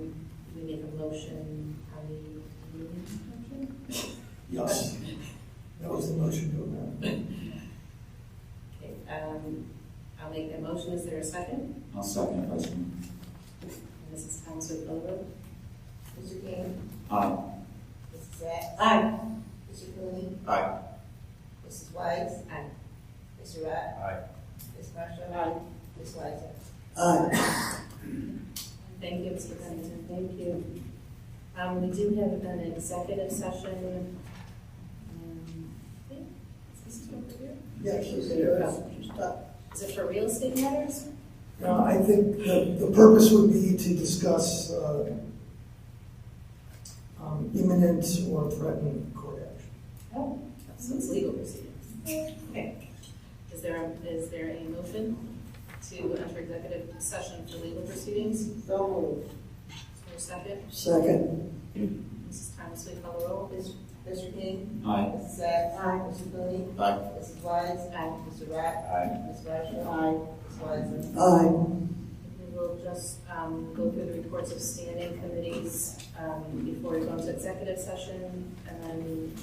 we make a motion, how we, do we make a motion? Yes, that was the motion to amend. Okay, um, I'll make the motion, is there a second? I'll second, Vice Mayor. And Mrs. Thomas will call the roll. Mr. King, Aye. Mrs. Zack, Aye. Mr. Cooney, Aye. Mrs. Weiss, Aye. Mr. Rock, Aye. Ms. Marshall. Aye. Ms. Weiser. Aye. Thank you, Mr. Pennington, thank you. Um, we do have an executive session. um, I think- Is this over here? Yes, Is it for real estate matters? Now, I think the, the purpose would be to discuss, uh, um, imminent or threatened court action. Oh, so it's legal proceedings. Okay. Is there, a- is there a motion to enter executive session for legal proceedings? So moved. Is there a second? Second. Mrs. Thomas, will you call the roll? Mr. King, Aye. Mrs. Zack. Mr. Cooney. Aye. Mrs. Weiss, Aye. Mr. Rock, Aye. Ms. Marshall. Aye. Ms. Weiser. Aye. We will just um, go through the reports of standing committees um, before we go into executive session. And then,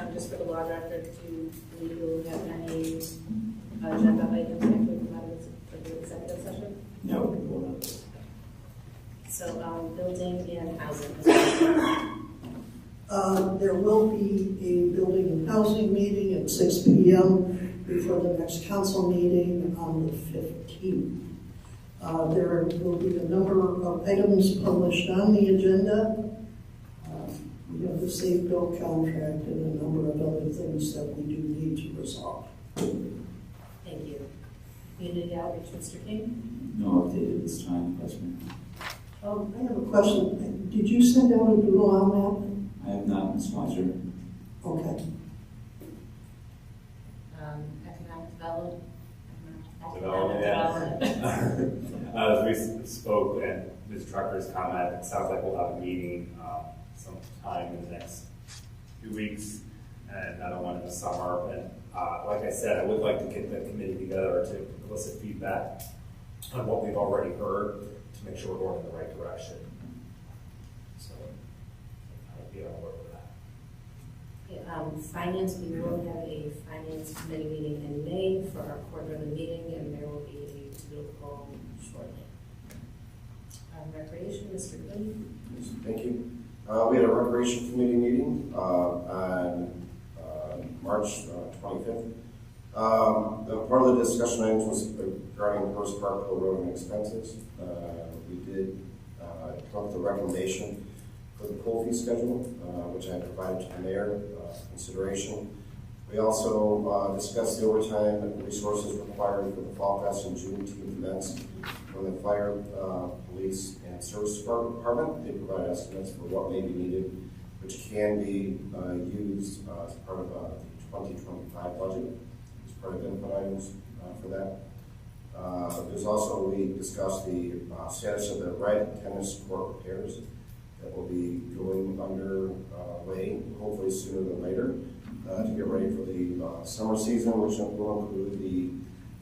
um, just for the law record, do we will have any agenda items that would come out of the- of the executive session? No, we will not. So, um, building and housing. Uh, There will be a building and housing meeting at six P M before the next council meeting on the fifteenth. Uh, There will be a number of items published on the agenda. Uh, We have the safe bill contract and a number of other things that we do need to resolve. Thank you. Community outreach, Mr. King? No updated this time, Vice Mayor. Um, I have a question. Did you send out a doodle on I have not, Ms. Weiser. that? Okay. Um, economic development. economic- Development, yes. Uh, As we s- spoke and Ms. Trucker's comment, it sounds like we'll have a meeting um, sometime in the next few weeks and another one in the summer. And uh, like I said, I would like to get the committee together to elicit feedback on what we've already heard to make sure we're going in the right direction. So I would be on board with that. Yeah, Um, finance, we will have a finance committee meeting in May for our quarterly meeting, and there will be a doodle poll shortly. Um, recreation, Mr. Quinn? Thank you. Uh, we had a recreation committee meeting, uh, on, uh, March twenty-fifth. Um, the part of the discussion items was regarding First Park Hill Road and expenses. Uh, we did, uh, come up with a recommendation for the pool fee schedule, uh, which I provided to the mayor, uh, for consideration. We also, uh, discussed the overtime resources required for the Fall Fest and Juneteenth events from the fire, uh, police, and service depart- department. They provide estimates for what may be needed, which can be uh, used uh, as part of uh, the 2025 budget, as part of input items uh, for that. Uh, There's also, we discussed the uh, status of the red tennis court repairs that will be going under uh, way, hopefully sooner than later, uh, to get ready for the uh, summer season, which will include the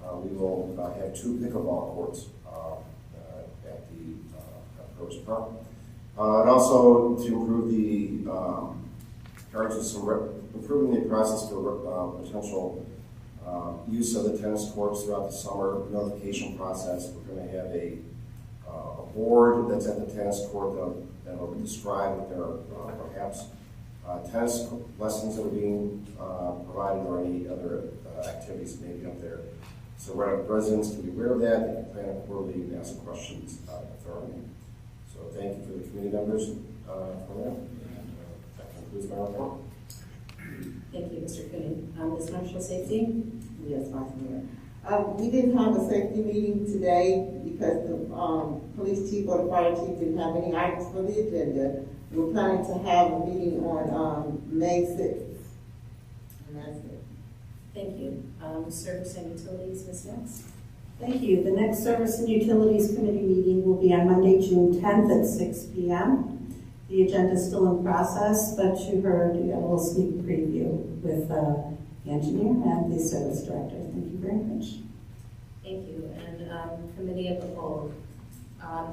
uh, we will uh, have two pickleball courts uh, uh, at the uh, at Rose Park. Uh, And also to improve the um, charges, some rep- improving the process for uh, potential uh, use of the tennis courts throughout the summer notification process. We're going to have a uh, a board that's at the tennis court that'll- that'll describe that there are uh, perhaps uh, tennis lessons that are being uh, provided or any other uh, activities maybe up there. So re- residents can be aware of that, they can plan accordingly and ask questions uh, if there are any. So thank you for the community members uh, for that, and uh, that concludes my report. Thank you, Mr. Quinn. Um, Ms. Marshall, safety? Yes, Vice Mayor. Um, we didn't have a safety meeting today because the, um, police chief or the fire chief didn't have any items for the agenda. We're planning to have a meeting on, um, May sixth. And that's it. Thank you. Um, service and utilities, Ms. Knox? Thank you. The next Service and Utilities Committee meeting will be on Monday, June 10th at 6 PM. The agenda is still in process, but you heard a little sneak preview with uh, the engineer and the service director. Thank you very much. Thank you. And, um, committee of the whole. Um,